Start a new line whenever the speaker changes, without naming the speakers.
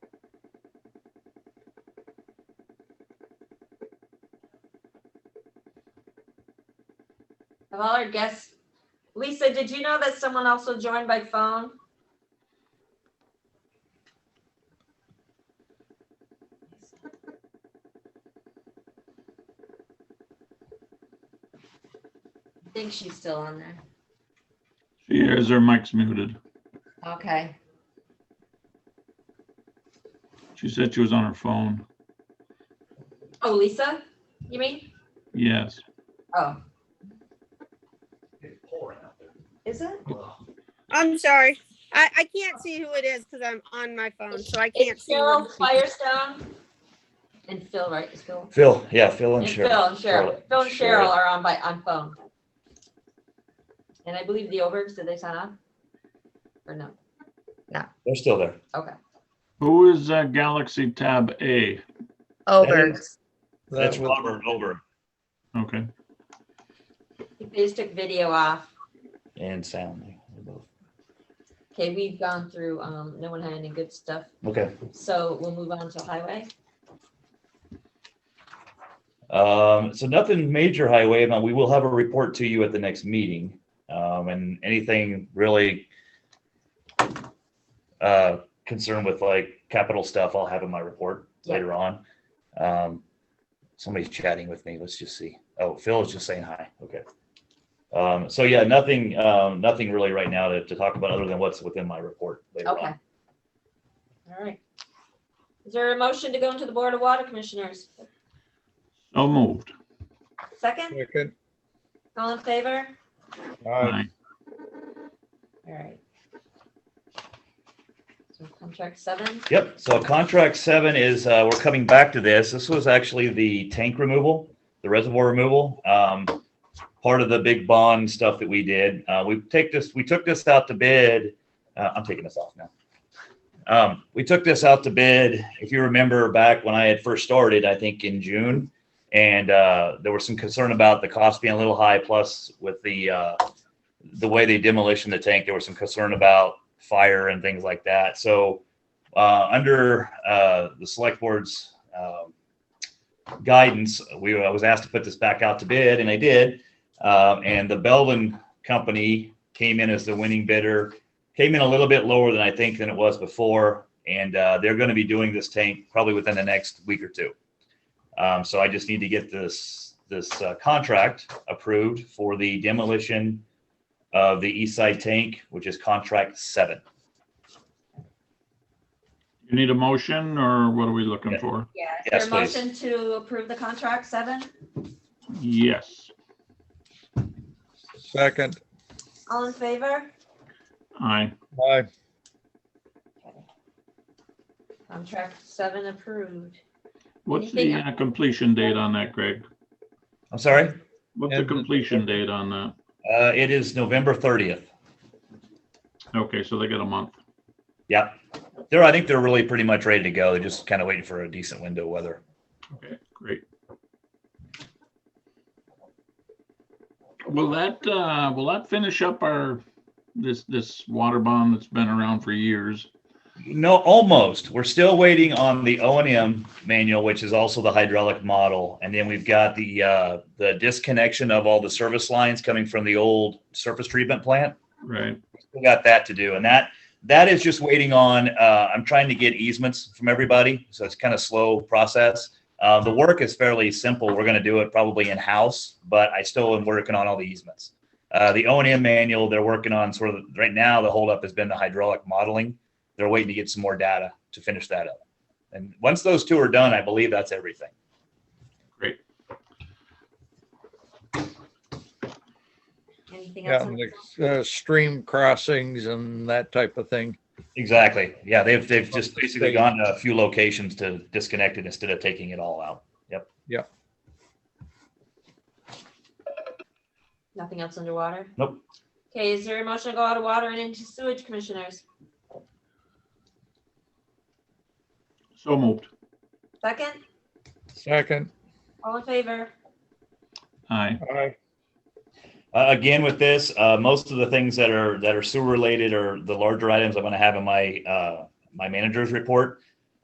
Of all our guests, Lisa, did you know that someone also joined by phone? I think she's still on there.
She hears her mic's muted.
Okay.
She said she was on her phone.
Oh, Lisa, you mean?
Yes.
Oh,
It's pouring out there.
is it?
Ugh.
I'm sorry. I, I can't see who it is because I'm on my phone, so I can't
It's
see. who
Phil
it is.
Firestone. And Phil, right? It's Phil.
Phil, yeah, Phil and
And Phil
Cheryl.
and Cheryl. Phil and Cheryl are on by, on phone. And I believe the Obergs, did they sign up? Or no?
They're still there.
Who is uh, Galaxy Tab A?
Obergs.
That's
That was-
Robert Over
Okay.
They just took video off.
and Sound. They're both-
Okay, we've gone through, um, no one had any good stuff,
Okay,
so we'll move on to highway.
um, so nothing major highway, but we will have a report to you at the next meeting. Um, and anything really uh, concerned with like capital stuff, I'll have in my report
Yeah.
later on. Um, somebody's chatting with me. Let's just see. Oh, Phil is just saying hi. Okay. Um, so yeah, nothing, um, nothing really right now to, to talk about other than what's within my report later on.
Okay. All right. Is there a motion to go into the Board of Water Commissioners?
So moved.
Second,
Second.
all in favor?
Aye.
All right. So contract seven,
Yep, so contract seven is, uh, we're coming back to this. This was actually the tank removal, the reservoir removal. Um, part of the big bond stuff that we did. Uh, we take this, we took this out to bid. Uh, I'm taking this off now. Um, we took this out to bid. If you remember back when I had first started, I think in June. And, uh, there was some concern about the cost being a little high, plus with the, uh, the way they demolition the tank, there was some concern about fire and things like that. So, uh, under uh, the select board's um, guidance, we I was asked to put this back out to bid, and I did. Um, and the Belvin company came in as the winning bidder, came in a little bit lower than I think than it was before, and uh, they're going to be doing this tank probably within the next week or two. Um, so I just need to get this this uh, contract approved for the demolition of the east side tank, which is contract seven.
You need a motion or what are we looking
Yeah.
for?
yeah. Is
Yes,
there a
please.
motion to approve the contract seven?
Yes.
Second.
All in favor?
Aye.
Aye.
Contract seven approved.
What's the
Anything-
uh, completion date on that, Greg?
I'm sorry.
What's the
And-
completion date on that?
Uh, it is November thirtieth.
Okay, so they got a month.
Yep. They're, I think they're really pretty much ready to go. They're just kind of waiting for a decent window of weather.
Okay, great. Will that, uh, will that finish up our, this, this water bond that's been around for years?
No, almost. We're still waiting on the O and M manual, which is also the hydraulic model. And then we've got the, uh, the disconnection of all the service lines coming from the old surface treatment plant.
Right,
We got that to do. And that, that is just waiting on, uh, I'm trying to get easements from everybody. So it's kind of slow process. Uh, the work is fairly simple. We're going to do it probably in-house, but I still am working on all the easements. Uh, the O and M manual, they're working on sort of, right now, the holdup has been the hydraulic modeling. They're waiting to get some more data to finish that up. And once those two are done, I believe that's everything.
Anything
Yeah,
else?
and
on
the
this?
uh, stream crossings and that type of thing.
Exactly. Yeah, they've, they've just
From the
basically
state.
gone to a few locations to disconnect it instead of taking it all out.
Nothing else underwater?
Nope.
Okay, is there a motion to go out of water and into sewage commissioners?
so moved.
Second,
Second.
all in favor?
Aye.
Aye.
Uh, again, with this, uh, most of the things that are that are sewer related or the larger items I'm going to have in my uh, my manager's report.